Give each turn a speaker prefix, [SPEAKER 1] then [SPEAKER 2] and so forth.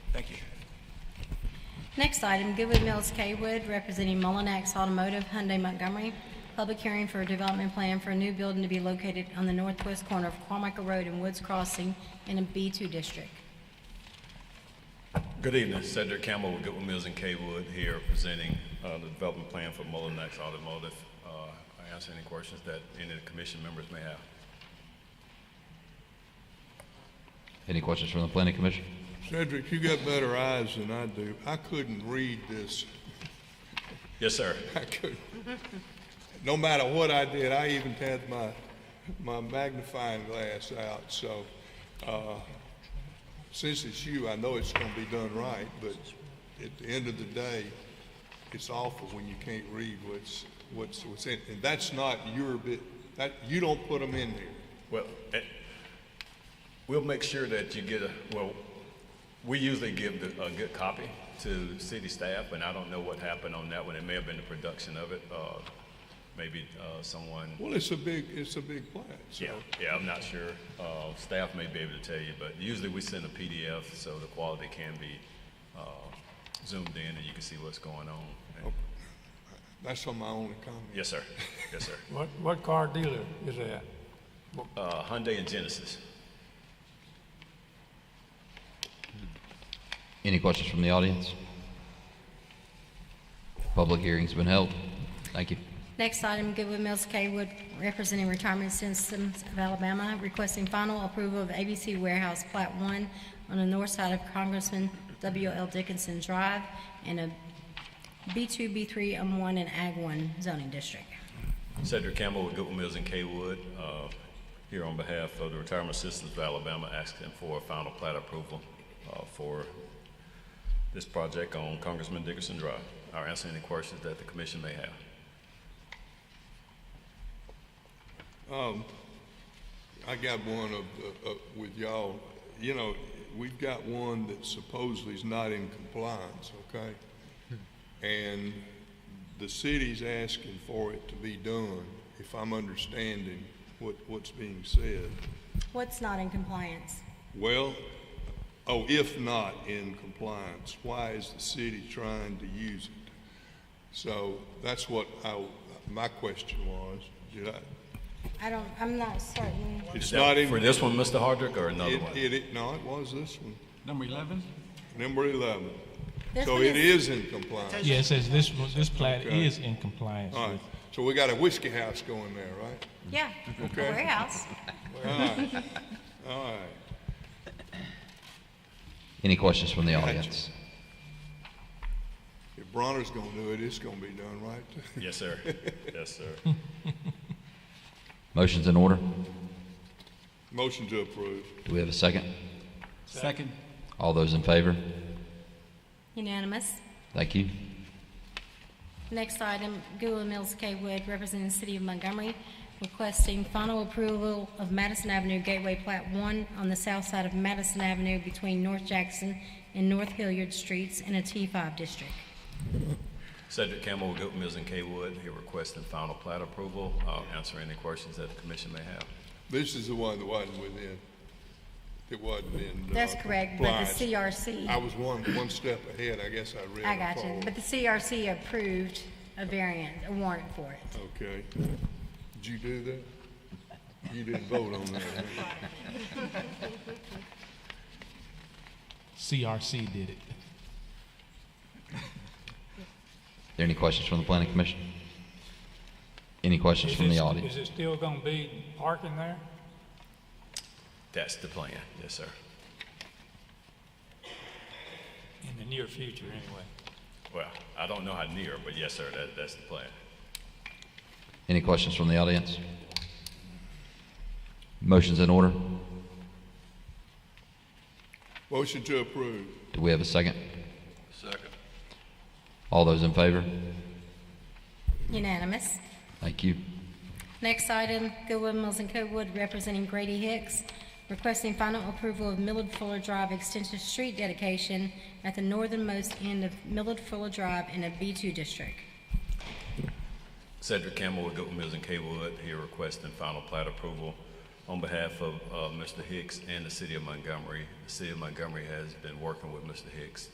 [SPEAKER 1] Next item, Goodwood Mills Kaywood, representing Mullinax Automotive, Hyundai Montgomery. Public hearing for a development plan for a new building to be located on the northwest corner of Carmichael Road and Woods Crossing in a B2 district.
[SPEAKER 2] Good evening, Cedric Campbell with Goodwin Mills and Kaywood here presenting uh, the development plan for Mullinax Automotive. Uh, I answer any questions that any of the commission members may have.
[SPEAKER 3] Any questions from the planning commission?
[SPEAKER 4] Cedric, you got better eyes than I do. I couldn't read this.
[SPEAKER 2] Yes, sir.
[SPEAKER 4] I couldn't. No matter what I did, I even had my, my magnifying glass out, so, uh, since it's you, I know it's gonna be done right, but at the end of the day, it's awful when you can't read what's, what's, what's in, and that's not your bit, that, you don't put them in here.
[SPEAKER 2] Well, eh, we'll make sure that you get a, well, we usually give the- a good copy to city staff, and I don't know what happened on that one. It may have been the production of it, uh, maybe uh, someone
[SPEAKER 4] Well, it's a big, it's a big plat, so.
[SPEAKER 2] Yeah, yeah, I'm not sure. Uh, staff may be able to tell you, but usually we send a PDF so the quality can be, uh, zoomed in and you can see what's going on. And-
[SPEAKER 4] That's on my only comment.
[SPEAKER 2] Yes, sir. Yes, sir.
[SPEAKER 5] What, what car dealer is that?
[SPEAKER 2] Uh, Hyundai and Genesis.
[SPEAKER 3] Any questions from the audience? Public hearing's been held. Thank you.
[SPEAKER 1] Next item, Goodwood Mills Kaywood, representing Retirement Systems of Alabama, requesting final approval of ABC Warehouse Plat 1 on the north side of Congressman W.L. Dickinson Drive in a B2, B3, M1, um, and Ag 1 zoning district.
[SPEAKER 2] Cedric Campbell with Goodwin Mills and Kaywood, uh, here on behalf of the Retirement Systems of Alabama, asking for a final plat approval, uh, for this project on Congressman Dickerson Drive. I'll answer any questions that the commission may have.
[SPEAKER 4] I got one of, uh, uh, with y'all, you know, we've got one that supposedly is not in compliance, okay? And the city's asking for it to be done, if I'm understanding what, what's being said.
[SPEAKER 1] What's not in compliance?
[SPEAKER 4] Well, oh, if not in compliance, why is the city trying to use it? So that's what I, my question was, did I,
[SPEAKER 1] I don't, I'm not certain.
[SPEAKER 4] it's
[SPEAKER 2] Is that
[SPEAKER 4] not in.
[SPEAKER 2] For this one, Mr. Hardrick, or another one?
[SPEAKER 4] It, it, no, it was this one.
[SPEAKER 6] Number 11?
[SPEAKER 4] Number 11.
[SPEAKER 1] This
[SPEAKER 4] So
[SPEAKER 1] one
[SPEAKER 4] it is in compliance.
[SPEAKER 7] Yeah, it says this, this plat is in compliance
[SPEAKER 4] All
[SPEAKER 7] with.
[SPEAKER 4] right, so we got a whiskey house going there, right?
[SPEAKER 1] Yeah, a
[SPEAKER 4] Okay.
[SPEAKER 1] warehouse.
[SPEAKER 4] All right.
[SPEAKER 3] Any questions from the audience?
[SPEAKER 4] If Bronner's gonna do it, it's gonna be done right.
[SPEAKER 2] Yes, sir. Yes, sir.
[SPEAKER 3] Motion's in order.
[SPEAKER 4] Motion to approve.
[SPEAKER 3] Do we have a second?
[SPEAKER 6] Second.
[SPEAKER 3] All those in favor?
[SPEAKER 1] Unanimous.
[SPEAKER 3] Thank you.
[SPEAKER 1] Next item, Gula Mills K. Wood, representing the City of Montgomery, requesting final approval of Madison Avenue Gateway Plat 1 on the south side of Madison Avenue between North Jackson and North Hilliard Streets in a T5 district.
[SPEAKER 2] Cedric Campbell with Goodwin Mills and Kaywood, here requesting final plat approval. I'll answer any questions that the commission may have.
[SPEAKER 4] This is the one that wasn't within, it wasn't in. uh,
[SPEAKER 1] That's correct, but the
[SPEAKER 4] compliance. I
[SPEAKER 1] CRC,
[SPEAKER 4] was one, one step ahead, I guess I read.
[SPEAKER 1] I got you,
[SPEAKER 4] forward.
[SPEAKER 1] but the CRC approved a variant, a warrant for it.
[SPEAKER 4] Okay. Did you do that? You didn't vote on that, huh?
[SPEAKER 7] CRC did it.
[SPEAKER 3] Are there any questions from the planning commission? Any questions
[SPEAKER 5] Is
[SPEAKER 3] from the
[SPEAKER 5] it-
[SPEAKER 3] audience?
[SPEAKER 5] Is it still gonna be parking there?
[SPEAKER 2] That's the plan. Yes, sir.
[SPEAKER 5] In the near future, anyway.
[SPEAKER 2] Well, I don't know how near, but yes, sir, that, that's the plan.
[SPEAKER 3] Any questions from the audience? Motion's in order.
[SPEAKER 4] Motion to approve.
[SPEAKER 3] Do we have a second? Second. All those in favor?
[SPEAKER 1] Unanimous.
[SPEAKER 3] Thank you.
[SPEAKER 1] Next item, Goodwood Mills and Coatwood, representing Grady Hicks, requesting final approval of Millard Fuller Drive Extensive Street dedication at the northernmost end of Millard Fuller Drive in a B2 district.
[SPEAKER 2] Cedric Campbell with Goodwin Mills and Kaywood, here requesting final plat approval on behalf of, uh, Mr. Hicks and the city of Montgomery. The city of Montgomery has been working with Mr. Hicks